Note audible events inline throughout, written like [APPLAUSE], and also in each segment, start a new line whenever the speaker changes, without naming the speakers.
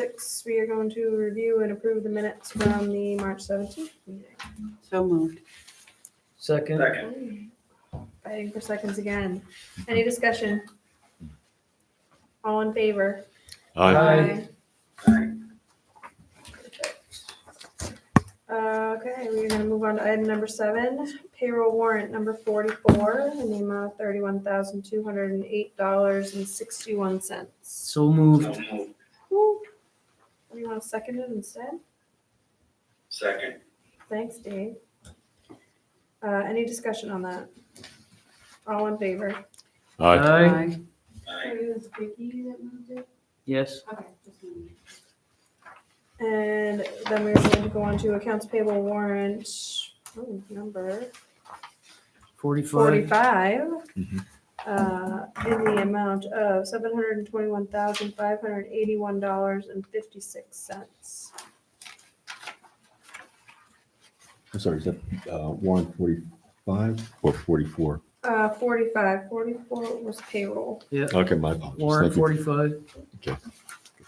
six, we are going to review and approve the minutes from the March seventeenth
So moved.
Second,
Second.
meeting. Fighting for seconds again. Any discussion? All in favor?
Aye.
Aye.
Aye. Perfect. Uh, Okay, we're gonna move on to item number seven, payroll warrant number forty-four, in the amount of thirty-one thousand, two hundred and eight dollars and sixty-one cents.
so moved.
So moved.
Do you want to second it instead?
Second.
Thanks, Dave. Uh, any discussion on that? All in favor?
Aye,
Aye.
Aye.
yes.
And then we're going to go on to accounts payable warrant, oh, number
Forty-five,
forty-five.
Mhm.
Uh, in the amount of seven hundred and twenty-one thousand, five hundred and eighty-one dollars and fifty-six cents.
I'm sorry, is that uh, warrant 45 or 44?
Uh, forty-five, forty-four was payroll.
Okay, my apologies.
warrant
Thank you.
forty-five,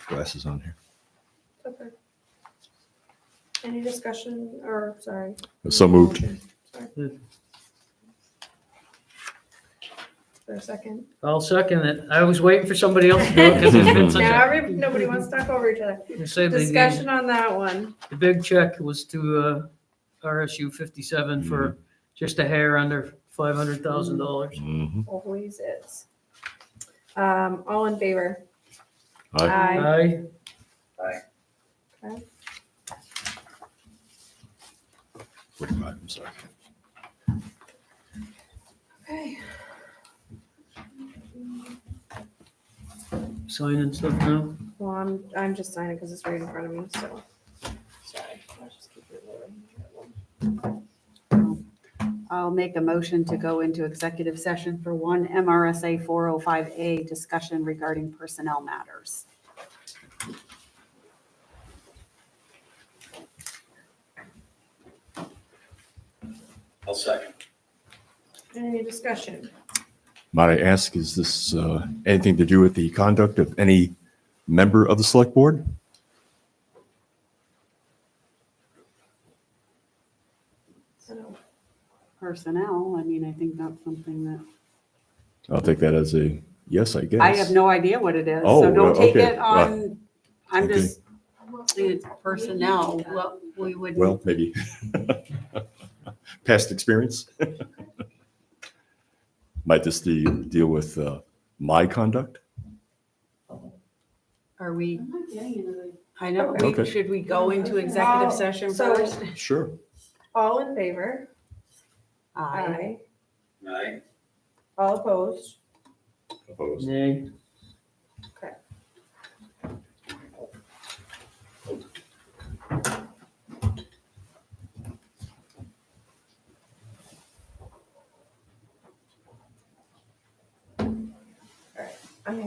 Glasses on here.
Okay. Any discussion, or, sorry,
So moved.
for a second?
[LAUGHS] I'll second it. I was waiting for somebody else to do
[LAUGHS]
it because it's been such
[LAUGHS] Now,
a.
every- nobody wants to talk over each other.
You say the-
Discussion on that one.
The big check was to uh, RSU fifty-seven
Mm-hmm.
for just a hair under five hundred thousand dollars.
Mhm.
Always is. Um, all in favor?
Aye.
Aye,
Okay.
45, I'm sorry.
Okay.
sign and stuff now.
Well, I'm, I'm just signing because it's right in front of me, so. Sorry. I'll just keep it moving.
I'll make a motion to go into executive session for one MRSA 405A discussion regarding personnel matters.
I'll second.
Any discussion?
Might I ask, is this uh, anything to do with the conduct of any member of the select board?
I don't-
Personnel, I mean, I think that's something that,
I'll take that as a yes, I guess.
I have no idea what it is, so
Oh,
don't take
okay.
it on, I'm
okay.
just, it's personnel, what we would.
Well, maybe. [LAUGHS] Past experience? [LAUGHS] Might this de- deal with uh,
[LAUGHS]
my conduct?
Are we,
I'm not getting into the
I know, we-
Okay.
should we go into
Wow.
executive session
So-
first?
Sure.
All in favor?
Aye.
Aye.
All opposed?
Opposed?
Nay,